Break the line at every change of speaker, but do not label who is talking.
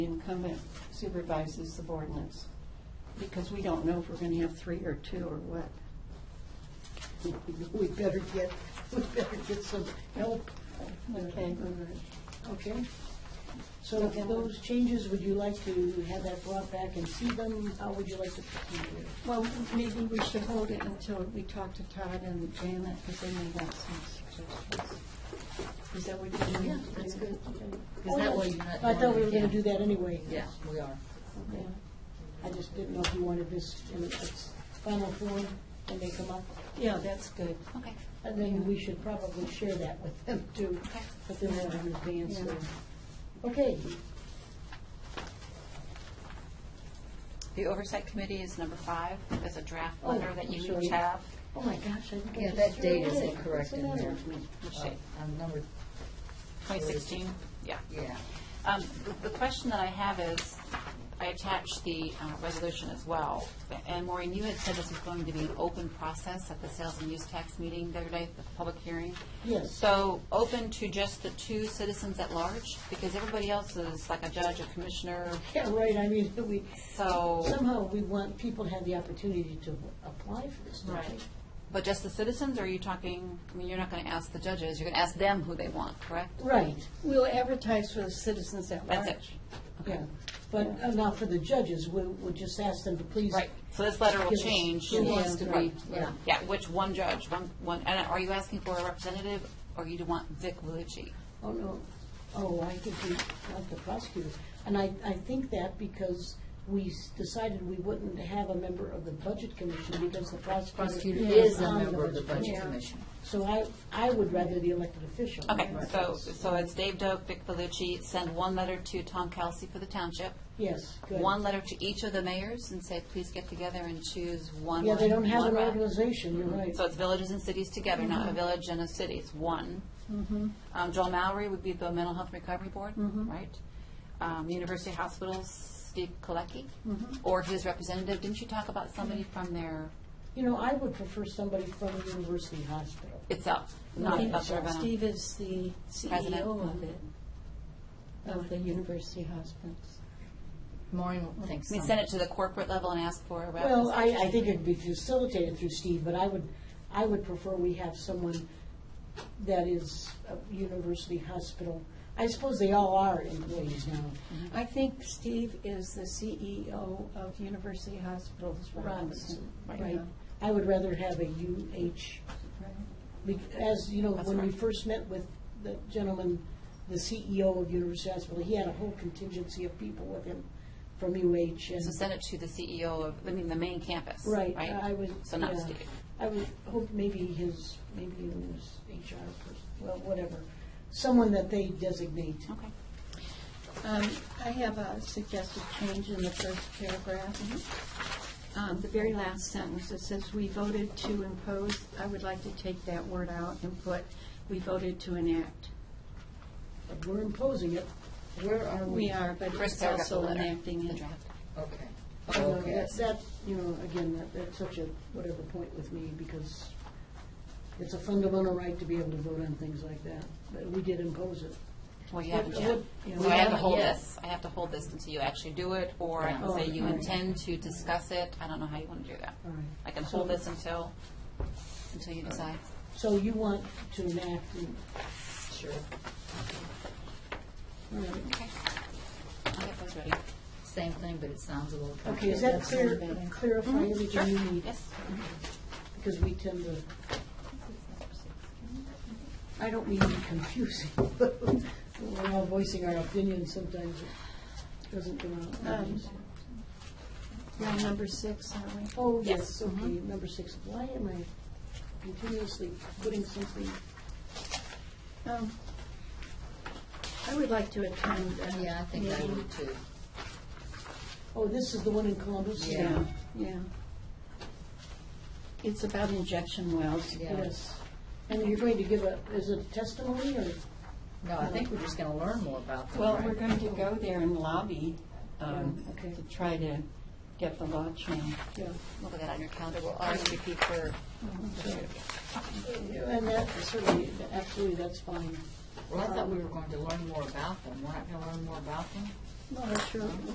The incumbent supervises subordinates, because we don't know if we're going to have three or two or what.
We better get, we better get some help,
Okay,
okay? So if those changes, would you like to have that brought back and see them? How would you like to proceed here?
well, maybe we should hold it until we talk to Todd and Janet, because they may have some suggestions. Is that what you're doing?
Yeah, that's good.
Oh,
Because that
no,
way you're not.
I thought we were
doing
gonna
it
do
again.
that anyway.
Yeah, we are.
Yeah.
I just didn't know if you wanted this in its final form when they come up.
Yeah, that's good.
Okay,
And then we should probably share that with them too,
Okay.
but then they'll have an advance
Yeah.
there. Okay,
the oversight committee is number five, there's a draft
Oh,
letter that you
sorry.
each have.
oh my gosh, I think I
Yeah,
just
that
threw
date
it
isn't
away. What's
correct
the
in
matter
there.
with me?
Let's see,
On number,
2016, yeah.
yeah.
Um, the- The question that I have is, I attached the uh, resolution as well, and Maureen, you had said this was going to be an open process at the sales and use tax meeting the other day, the public hearing.
Yes.
So, open to just the two citizens at large, because everybody else is like a judge, a commissioner,
Yeah, right, I mean, we,
so,
somehow we want people to have the opportunity to apply for this, do
Right. but just the citizens, or are you talking, I mean, you're not going to ask the judges, you're going to ask them who they want, correct?
Right,
We'll advertise for the citizens at large.
That's it.
yeah. But uh, now for the judges, we, we'll just ask them to please.
Right, so this letter will
Give us-
change.
Who wants to
Right.
be, yeah.
Yeah, which one judge, one, one, and are you asking for a representative, or you do want Vic Vellucci?
Oh, no, oh, I think we want the prosecutors. And I, I think that because we s- decided we wouldn't have a member of the budget commission because the prosecutor
Prosecutor
is
is a
on the budget.
member of the
commission.
Budget
Yeah.
Commission.
So I, I would rather the elected official.
Okay, so, so it's Dave Doak, Vic Vellucci, send one letter to Tom Kelsey for the township,
Yes, good.
one letter to each of the mayors, and say, please get together and choose one.
Yeah, they don't have
one
an
rep."
organization, you're right.
So it's villages and cities together, not
Mm-hmm.
a village and a city, it's one. Um, Joel Mallory would be the Mental Health Recovery Board,
Mm-hmm.
right? Um, University Hospitals, Steve Kolecki,
Mm-hmm.
or his representative. Didn't you talk about somebody from their
You know, I would prefer somebody from the university hospital.
itself,
I
not
think
Upper Benham?
Steve is the
President.
CEO of it, of the university hospitals.
Maureen thinks
I mean,
so.
send it to the corporate level and ask for a rep.
Well, I, I think it'd be facilitated through Steve, but I would, I would prefer we have someone that is a university hospital. I suppose they all are employees now.
I think Steve is the CEO of University Hospitals Robinson.
Right. I would rather have a UH, bec- as, you know,
That's
when we
right.
first met with the gentleman, the CEO of University Hospital, he had a whole contingency of people with him from UH and.
So send it to the CEO of, I mean, the main campus,
Right,
right?
I would.
So not
yeah.
Steve.
I would hope maybe his, maybe it was HR person, well, whatever, someone that they designate.
Okay.
Um, I have a suggested change in the first paragraph. Um, The very last sentence, it says, "We voted to impose," I would like to take that word out and put, "We voted to enact."
But We're imposing it.
Where are we?
We are, but
First
it's
paragraph of
also
the letter,
enacting
the
it.
draft.
Okay.
You know,
Okay.
Oh, that- That, you know, again, that, that's such a whatever point with me because it's a fundamental right to be able to vote on things like that, but we did impose it.
Well, you haven't
What-
yet.
what- you know,
So I have to
haven't
hold
yet.
this, I have to hold this until you actually do it, or I can
Yeah.
say you
Oh, all right.
intend to discuss it, I don't know how you want to do that.
All right.
I can hold this until, until you decide.
So you want to enact, and-
Sure.
all right.
Okay. I'll get those ready.
Same thing, but it sounds a little.
okay, is
complicated.
that clear, clarify everything you need?
Yes.
Because we tend to, I don't mean to be confusing, but we're all voicing our opinions sometimes. It doesn't come out.
Um, We're on number six, aren't we?
Oh, yes,
yes,
okay, number six. Why am I continuously putting something?
Um, I would like to attend. uh,
Yeah, I think I
meeting.
would too.
Oh, this is the one in Columbus?
Yeah.
Yeah, yeah. It's about injection wells.
Yeah.
Yes. And you're going to give a, is it testimony or?
No, I think we're just going to learn more about them.
Well,
right?
we're going to go there and lobby um,
Yeah, okay.
to try to get the law changed.
Yeah.
Look at that on your calendar, we'll RSVP for,
And that, certainly, absolutely, that's fine.
Well, I thought we were going to learn more about them. We're not going to learn more about them?
Well, that's true.